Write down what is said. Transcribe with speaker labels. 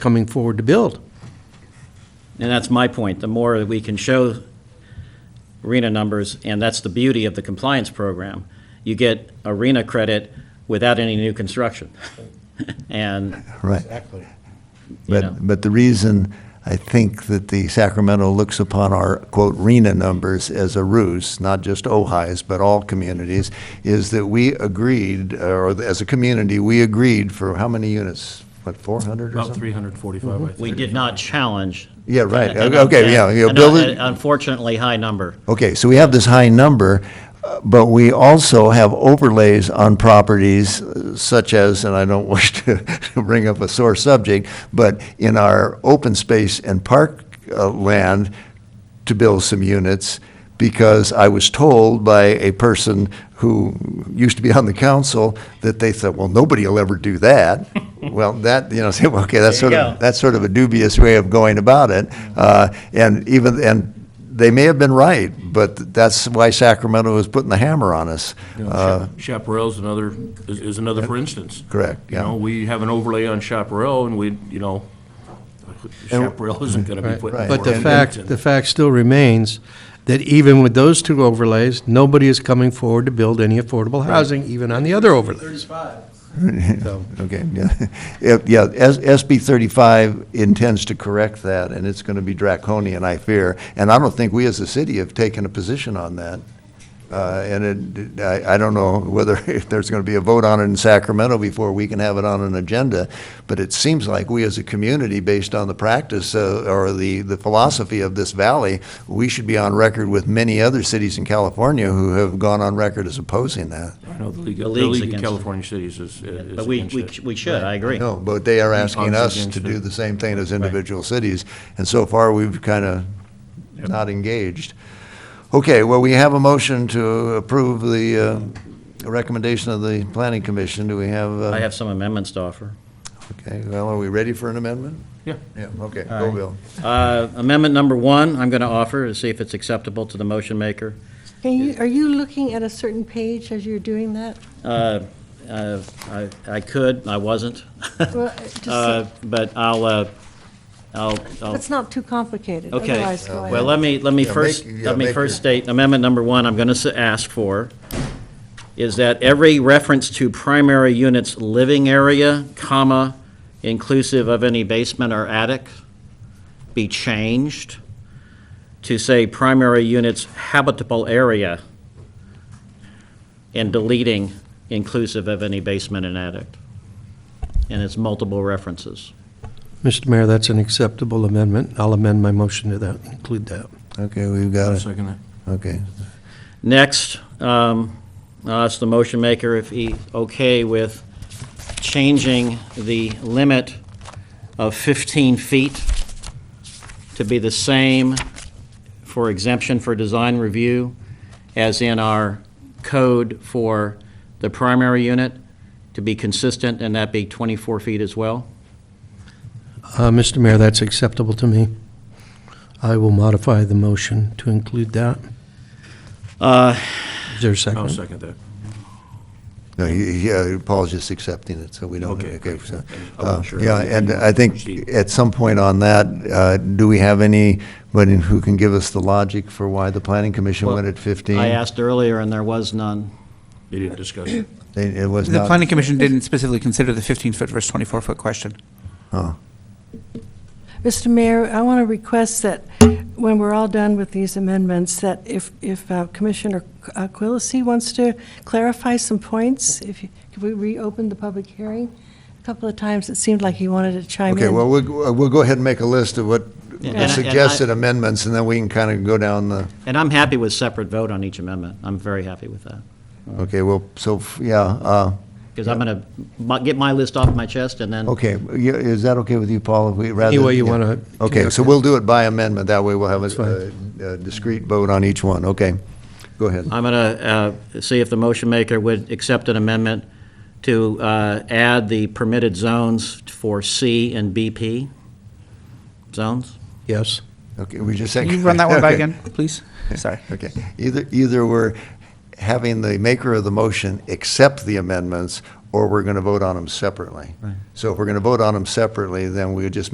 Speaker 1: coming forward to build.
Speaker 2: And that's my point. The more that we can show arena numbers, and that's the beauty of the compliance program, you get arena credit without any new construction. And,
Speaker 3: Right.
Speaker 4: Exactly.
Speaker 2: you
Speaker 3: But,
Speaker 2: know,
Speaker 3: but the reason I think that the Sacramento looks upon our quote RENA numbers as a ruse, not just Ojai's, but all communities, is that we agreed, or as a community, we agreed for how many units? What, 400 or
Speaker 5: About
Speaker 3: something? Mm-hmm.
Speaker 5: 345, I think.
Speaker 2: we did not challenge.
Speaker 3: Yeah, right.
Speaker 2: an-
Speaker 3: Okay, yeah, yeah,
Speaker 2: an
Speaker 3: build it-
Speaker 2: Unfortunately, high number.
Speaker 3: Okay, so we have this high number, uh, but we also have overlays on properties uh, such as, and I don't wish to bring up a sore subject, but in our open space and park uh, land to build some units, because I was told by a person who used to be on the council that they thought, well, nobody will ever do that. Well, that, you know, say, well, okay, that's
Speaker 2: There
Speaker 3: sort
Speaker 2: you
Speaker 3: of,
Speaker 2: go.
Speaker 3: that's sort of a dubious way of going about it. Uh, And even, and they may have been right, but that's why Sacramento is putting the hammer on us. Uh,
Speaker 5: Chap- Chaparral's another, is- is another for instance.
Speaker 3: Correct,
Speaker 5: You know,
Speaker 3: yeah.
Speaker 5: we have an overlay on Chaparral, and we, you know, Chaparral isn't going to be
Speaker 1: Right.
Speaker 5: put in.
Speaker 1: But the
Speaker 5: Warrenton.
Speaker 1: fact, the fact still remains that even with those two overlays, nobody is coming forward to build any affordable housing, even on the other overlays. So,
Speaker 3: Okay, yeah. If- Yeah, S- SB 35 intends to correct that, and it's going to be draconian, I fear. And I don't think we as a city have taken a position on that. Uh, And it- I I don't know whether, if there's going to be a vote on it in Sacramento before we can have it on an agenda, but it seems like we as a community, based on the practice uh, or the the philosophy of this valley, we should be on record with many other cities in California who have gone on record as opposing that.
Speaker 5: I know The League the
Speaker 2: The league's
Speaker 5: League of
Speaker 2: against it.
Speaker 5: California Cities is is
Speaker 2: But we,
Speaker 5: against
Speaker 2: we,
Speaker 5: it.
Speaker 2: we should, I agree.
Speaker 3: No, but they are asking
Speaker 5: Us
Speaker 3: us to
Speaker 5: against it.
Speaker 3: do the same thing as individual cities, and so far, we've kind of not engaged. Okay, well, we have a motion to approve the uh, recommendation of the planning commission. Do we have? uh,
Speaker 2: I have some amendments to offer.
Speaker 3: Okay, well, are we ready for an amendment?
Speaker 5: Yeah.
Speaker 3: Yeah, okay, go, Bill.
Speaker 2: Uh, Amendment number one, I'm going to offer to see if it's acceptable to the motion maker.
Speaker 6: Can you, are you looking at a certain page as you're doing that?
Speaker 2: Uh, uh, I I could, I wasn't.
Speaker 6: Well, just-
Speaker 2: Uh, But I'll, uh, I'll, I'll-
Speaker 6: That's not too complicated.
Speaker 2: Oh. okay. Uh,
Speaker 6: Otherwise, go
Speaker 2: Well,
Speaker 6: ahead.
Speaker 2: let me, let me
Speaker 3: Yeah,
Speaker 2: first,
Speaker 3: make- yeah,
Speaker 2: let me
Speaker 3: make
Speaker 2: first
Speaker 3: your-
Speaker 2: state, amendment number one I'm going to ask for is that every reference to primary unit's living area, comma, inclusive of any basement or attic, be changed to say primary unit's habitable area and deleting inclusive of any basement and attic. And it's multiple references.
Speaker 1: Mr. Mayor, that's an acceptable amendment. I'll amend my motion to that, include that.
Speaker 3: Okay, we've got
Speaker 5: I'll
Speaker 3: it,
Speaker 5: Second that.
Speaker 3: okay.
Speaker 2: Next, um, I'll ask the motion maker if he okay with changing the limit of 15 feet to be the same for exemption for design review as in our code for the primary unit, to be consistent, and that be 24 feet as well?
Speaker 1: Uh, Mr. Mayor, that's acceptable to me. I will modify the motion to include that.
Speaker 2: Uh,
Speaker 1: Is there a second?
Speaker 5: I'll second that.
Speaker 3: No, he- he, uh, Paul's just accepting it, so we don't,
Speaker 5: Okay,
Speaker 3: okay, so.
Speaker 5: I wasn't
Speaker 3: uh,
Speaker 5: sure.
Speaker 3: Yeah, and I think
Speaker 5: Proceed.
Speaker 3: at some point on that, uh, do we have anybody who can give us the logic for why the planning commission went at 15?
Speaker 2: I asked earlier, and there was none.
Speaker 5: They didn't discuss it.
Speaker 3: It it was
Speaker 7: The
Speaker 3: not.
Speaker 7: planning commission didn't specifically consider the 15-foot versus 24-foot question.
Speaker 3: huh.
Speaker 6: Mr. Mayor, I want to request that when we're all done with these amendments, that if, if uh, Commissioner uh, Quilisi wants to clarify some points, if, you- if we reopen the public hearing, a couple of times it seemed like he wanted to chime in.
Speaker 3: Okay, well, we'll, we'll go ahead and make a list of what
Speaker 2: Yeah, and
Speaker 3: the
Speaker 2: I- and I-
Speaker 3: suggested amendments, and then we can kind of go down the,
Speaker 2: And I'm happy with separate vote on each amendment. I'm very happy with that.
Speaker 3: okay, well, so, f- yeah, uh,
Speaker 2: Because I'm going to get my list off my chest and then,
Speaker 3: okay, yeah, is that okay with you, Paul, if we, rather?
Speaker 1: Any way you
Speaker 3: yeah.
Speaker 1: wanna
Speaker 3: Okay,
Speaker 1: conduct
Speaker 3: so
Speaker 1: it.
Speaker 3: we'll do it by amendment, that way we'll have a-
Speaker 1: fine.
Speaker 3: a a discrete vote on each one, okay? Go ahead.
Speaker 2: I'm going to see if the motion maker would accept an amendment to uh, add the permitted zones for C and BP zones.
Speaker 1: Yes.
Speaker 3: Okay, we just
Speaker 7: Can
Speaker 3: said.
Speaker 7: you run that one by
Speaker 3: Okay.
Speaker 7: again, please? Sorry.
Speaker 3: Okay, either, either we're having the maker of the motion accept the amendments, or we're going to vote on them separately. So if we're going to vote on them separately, then we would just